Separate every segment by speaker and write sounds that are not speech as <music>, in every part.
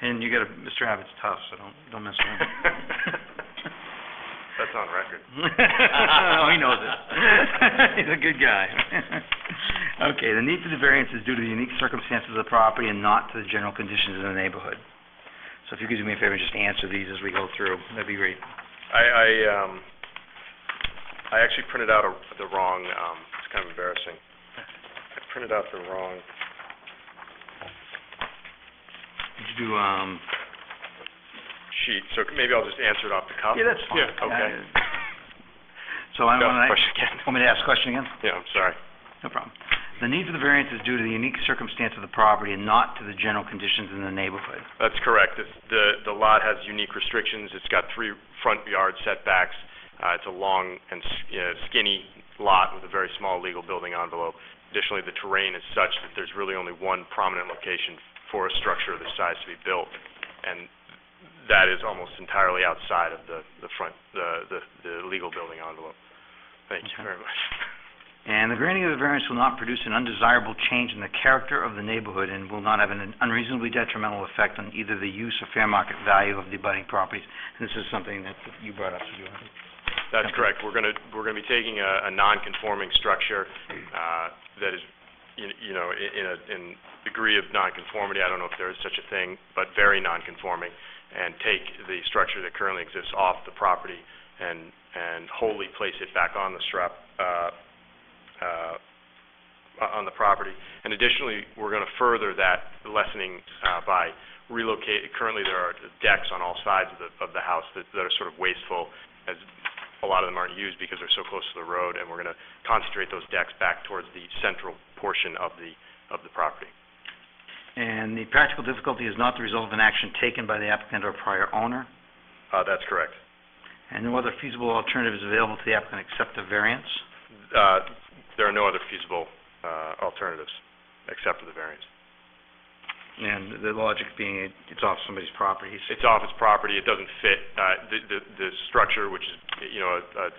Speaker 1: And you gotta, Mr. Abbott's tough, so don't, don't mess with him.
Speaker 2: That's on record.
Speaker 1: Oh, <laughs> he knows it. <laughs> He's a good guy. <laughs> Okay, the need for the variance is due to the unique circumstances of the property and not to the general conditions in the neighborhood. So if you could do me a favor and just answer these as we go through, that'd be great.
Speaker 2: I, I, um, I actually printed out a, the wrong, um, it's kind of embarrassing. I printed out the wrong,
Speaker 1: Did you do, um...
Speaker 2: sheet, so maybe I'll just answer it off the cuff.
Speaker 1: oh, Yeah, that's fine.
Speaker 2: Yeah, okay.
Speaker 1: Uh, <laughs> So I
Speaker 2: Go,
Speaker 1: wanna,
Speaker 2: question again. <laughs>
Speaker 1: want me to ask a question again?
Speaker 2: Yeah, I'm sorry.
Speaker 1: No problem. The need for the variance is due to the unique circumstance of the property and not to the general conditions in the neighborhood.
Speaker 2: That's correct. It's, the, the lot has unique restrictions. It's got three front yard setbacks. Uh, it's a long and s- you know, skinny lot with a very small legal building envelope. Additionally, the terrain is such that there's really only one prominent location for a structure of this size to be built. And that is almost entirely outside of the, the front, the, the, the legal building envelope. Thank you
Speaker 1: Okay.
Speaker 2: very much.
Speaker 1: And the granting of the variance will not produce an undesirable change in the character of the neighborhood and will not have an unreasonably detrimental effect on either the use or fair market value of the abutting properties. And this is something that you brought up, so you want to-
Speaker 2: That's
Speaker 1: Okay.
Speaker 2: correct. We're gonna, we're gonna be taking a, a non-conforming structure, uh, that is, you you know, i- in a, in degree of non-conformity, I don't know if there is such a thing, but very non-conforming, and take the structure that currently exists off the property and, and wholly place it back on the strap, uh, uh, o- on the property. And additionally, we're gonna further that lessening, uh, by relocate, currently there are decks on all sides of the, of the house that, that are sort of wasteful, as a lot of them aren't used because they're so close to the road, and we're gonna concentrate those decks back towards the central portion of the, of the property.
Speaker 1: And the practical difficulty is not the result of an action taken by the applicant or prior owner,
Speaker 2: Uh, that's correct.
Speaker 1: and no other feasible alternative is available to the applicant except a variance.
Speaker 2: Uh, there are no other feasible, uh, alternatives, except for the variance.
Speaker 1: And the logic being, it- it's off somebody's property, so-
Speaker 2: It's office property, it doesn't fit, uh, the, the, the structure, which is, you know, a, a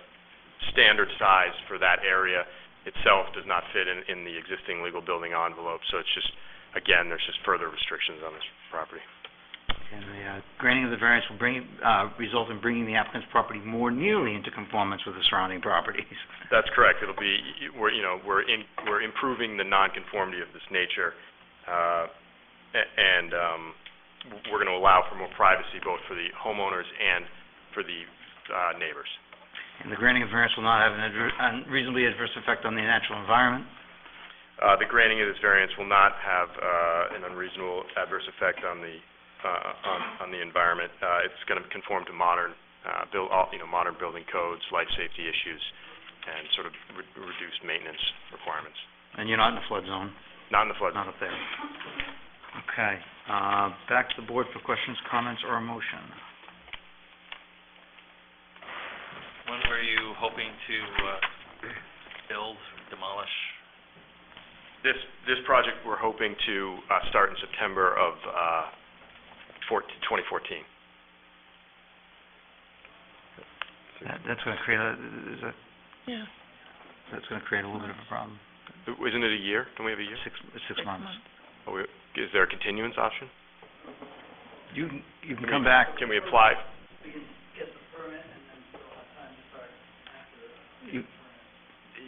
Speaker 2: standard size for that area itself does not fit in, in the existing legal building envelope, so it's just, again, there's just further restrictions on this property.
Speaker 1: And the uh, granting of the variance will bring, uh, result in bringing the applicant's property more nearly into conformance with the surrounding properties.
Speaker 2: That's correct. It'll be, we're, you know, we're in, we're improving the nonconformity of this nature, uh, a- and, um, we're gonna allow for more privacy both for the homeowners and for the, uh, neighbors.
Speaker 1: And the granting of variance will not have an adver- unreasonably adverse effect on the natural environment.
Speaker 2: Uh, the granting of this variance will not have, uh, an unreasonable adverse effect on the, uh, on, on the environment. Uh, it's gonna conform to modern, uh, buil- all, you know, modern building codes, life safety issues, and sort of re- reduced maintenance requirements.
Speaker 1: And you're not in a flood zone,
Speaker 2: Not in the flood zone.
Speaker 1: not up there. Okay, uh, back to the board for questions, comments, or a motion.
Speaker 3: When were you hoping to uh, build, demolish?
Speaker 2: This, this project, we're hoping to uh, start in September of uh, 14 2014.
Speaker 1: That, that's gonna create a, is that? Yeah. That's gonna create a little bit of a problem.
Speaker 2: Isn't it a year? Don't we have a year?
Speaker 1: Six, six months.
Speaker 2: Are we- Is there a continuance option?
Speaker 1: You, can- you can come back,
Speaker 2: Can we apply?
Speaker 1: you,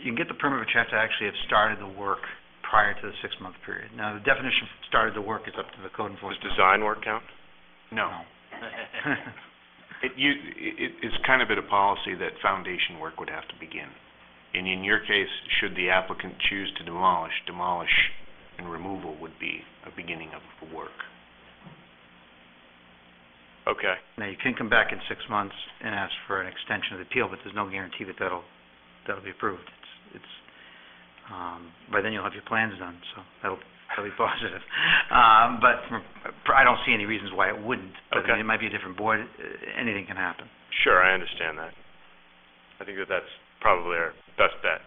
Speaker 1: you can get the permit, but you have to actually have started the work prior to the six-month period. Now, the definition of started the work is up to the code
Speaker 2: Does
Speaker 1: enforcement.
Speaker 2: design work count?
Speaker 1: <laughs>
Speaker 4: No. It, you, it, it's kind of been a policy that foundation work would have to begin. And in your case, should the applicant choose to demolish, demolish and removal would be a beginning of the work.
Speaker 2: Okay.
Speaker 1: Now, you can come back in six months and ask for an extension of the appeal, but there's no guarantee that that'll, that'll be approved. It's, it's, um, by then you'll have your plans done, so that'll, that'll be <laughs> positive. Um, but from, I don't see any reasons why it wouldn't. But I mean,
Speaker 2: Okay.
Speaker 1: it might be a different board, uh, anything can happen.
Speaker 2: Sure, I understand that. I think that that's probably our best bet.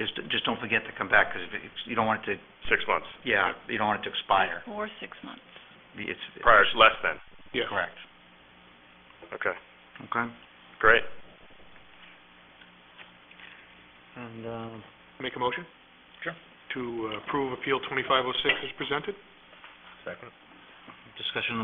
Speaker 1: Just, just don't forget to come back, because you don't want it to
Speaker 2: Six months.
Speaker 1: Yeah, you don't want it to expire.
Speaker 5: Or six months.
Speaker 1: It's.
Speaker 2: Prior, less than.
Speaker 1: Correct.
Speaker 2: Okay,
Speaker 1: Okay.
Speaker 2: great.
Speaker 1: And, um,
Speaker 6: Make a motion? Sure. To uh, approve Appeal 2506 as presented?
Speaker 1: discussion on